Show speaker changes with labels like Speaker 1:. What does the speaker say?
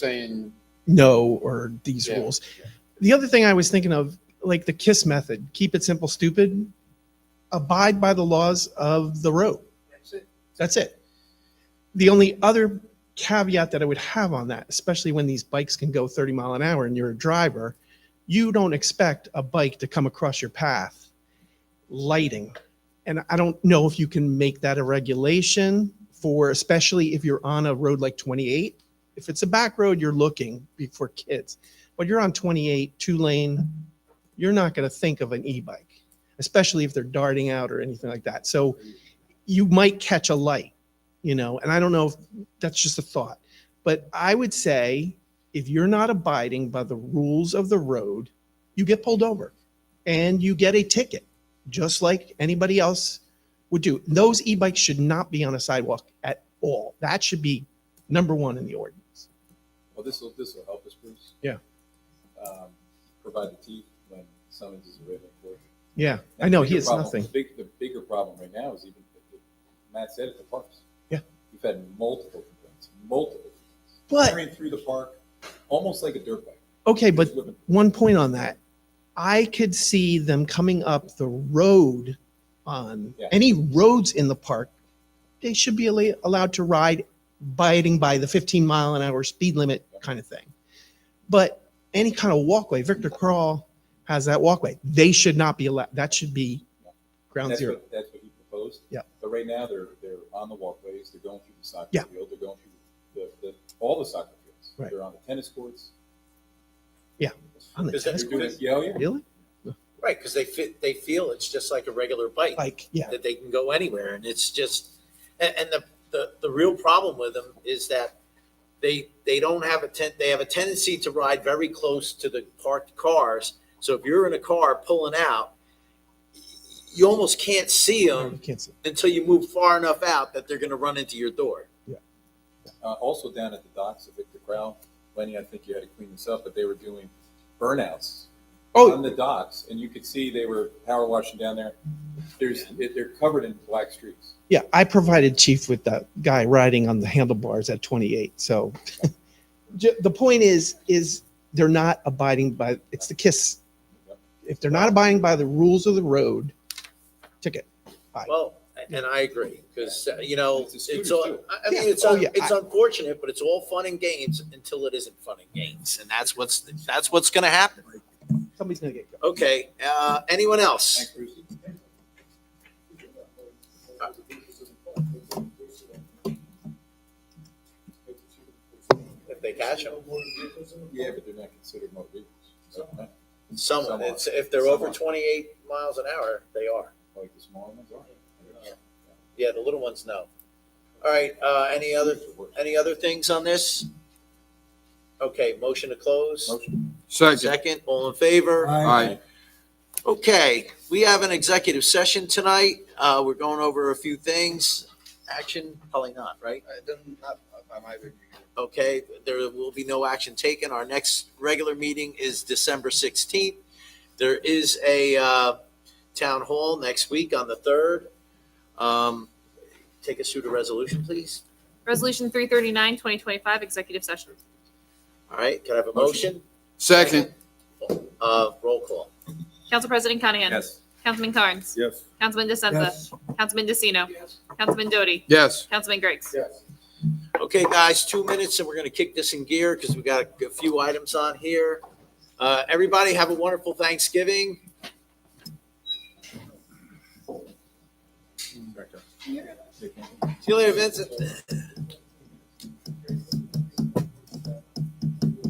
Speaker 1: saying
Speaker 2: no or these
Speaker 1: Yeah.
Speaker 2: rules. The other thing I was thinking of, like the KISS method, keep it simple, stupid, abide by the laws of the road.
Speaker 1: that's it.
Speaker 2: That's it. The only other caveat that I would have on that, especially when these bikes can go 30 mile an hour and you're a driver, you don't expect a bike to come across your path. Lighting. And I don't know if you can make that a regulation for, especially if you're on a road like 28. If it's a back road, you're looking be- for kids, but you're on 28, two lane, you're not going to think of an e bike, especially if they're darting out or anything like that. So, you might catch a light, you know, and I don't know if that's just a thought, but I would say if you're not abiding by the rules of the road, you get pulled over and you get a ticket, just like anybody else would do. Those e bikes should not be on a sidewalk at all. That should be number one in the ordinance.
Speaker 3: Well, Oh, this will, this will help us, Bruce.
Speaker 2: Yeah.
Speaker 3: Um, Provide the teeth when summons is written. for you.
Speaker 2: Yeah,
Speaker 3: And
Speaker 2: I know
Speaker 3: the
Speaker 2: he
Speaker 3: bigger
Speaker 2: has
Speaker 3: problem-
Speaker 2: nothing.
Speaker 3: The big, the bigger problem right now is even, Matt said it, the parks.
Speaker 2: Yeah.
Speaker 3: We've had multiple complaints, multiple.
Speaker 2: But-
Speaker 3: Carrying through the park, almost like a dirt bike.
Speaker 2: Okay, but
Speaker 3: Just whipping.
Speaker 2: one point on that. I could see them coming up the road on
Speaker 3: Yeah.
Speaker 2: any roads in the park. They should be alle- allowed to ride biting by the 15 mile an hour speed limit kind of thing. But any kind of walkway, Victor Crawl has that walkway. They should not be allowed. That should be ground
Speaker 3: That's
Speaker 2: zero.
Speaker 3: what, that's what he proposed.
Speaker 2: Yeah.
Speaker 3: But right now, they're, they're on the walkways, they're going through the soccer
Speaker 2: Yeah.
Speaker 3: field, they're going through the, the, all the soccer fields.
Speaker 2: Right.
Speaker 3: They're on the tennis courts.
Speaker 2: Yeah, on the
Speaker 3: They're
Speaker 2: tennis
Speaker 3: doing-
Speaker 1: courts.
Speaker 3: Yeah, oh, yeah.
Speaker 2: Really?
Speaker 4: Right, because they fit, they feel it's just like a regular bike,
Speaker 2: Like, yeah,
Speaker 4: that they can go anywhere, and it's just, and, and the, the, the real problem with them is that they, they don't have a ten, they have a tendency to ride very close to the parked cars, so if you're in a car pulling out, you almost can't see
Speaker 2: you
Speaker 3: um,
Speaker 4: them
Speaker 2: can't see.
Speaker 4: until you move far enough out that they're gonna run into your door.
Speaker 3: Uh, also down at the docks of Victor Crowell, Lenny, I think you had to clean this up, but they were doing burnouts on
Speaker 2: Oh,
Speaker 3: the docks, and you could see they were power washing down there. There's, it- they're covered in black streaks.
Speaker 2: yeah. I provided Chief with that guy riding on the handlebars at 28. So ju- the point is, is they're not abiding by, it's the kiss. If they're not abiding by the rules of the road, ticket.
Speaker 4: Well, and I agree, because, you know,
Speaker 3: It's the scooters,
Speaker 4: it's, all.
Speaker 3: too.
Speaker 4: I I mean,
Speaker 2: Yeah.
Speaker 4: it's,
Speaker 2: Oh,
Speaker 4: un-
Speaker 2: yeah.
Speaker 4: it's unfortunate, but it's all fun and games until it isn't fun and games, and that's what's, that's what's gonna happen.
Speaker 2: Somebody's gonna get.
Speaker 4: Okay, uh, anyone else?
Speaker 3: Thanks, Bruce.
Speaker 4: If they catch them,
Speaker 3: Yeah, but they're not considered motor vehicles. Okay.
Speaker 4: someone,
Speaker 3: Someone.
Speaker 4: it's, if they're
Speaker 3: Someone.
Speaker 4: over twenty-eight miles an hour, they are.
Speaker 3: Like the smaller ones are.
Speaker 4: Yeah, the little ones, no. All right, uh, any other, any other things on this? Okay, motion to close?
Speaker 3: Motion.
Speaker 5: Second.
Speaker 4: Second, all in favor?
Speaker 5: Aye.
Speaker 4: Okay, we have an executive session tonight. Uh, we're going over a few things. Action, probably not, right? Okay, there will be no action taken. Our next regular meeting is December sixteenth. There is a, uh, town hall next week on the third. Um, take us through the resolution, please.
Speaker 6: Resolution 339, 2025, executive session.
Speaker 4: All right, can I have a motion?
Speaker 5: Second.
Speaker 4: Uh, roll call.
Speaker 6: Council President Conahan.
Speaker 3: Yes.
Speaker 6: Councilman Carnes.
Speaker 3: Yes.
Speaker 6: Councilman DeSenza. Councilman DeCino. Councilman Doty.
Speaker 5: Yes.
Speaker 6: Councilman Griggs.
Speaker 3: Yes.
Speaker 4: Okay, guys, two minutes and we're gonna kick this in gear because we got a few items on here. Uh, everybody have a wonderful Thanksgiving. See you later, Vincent.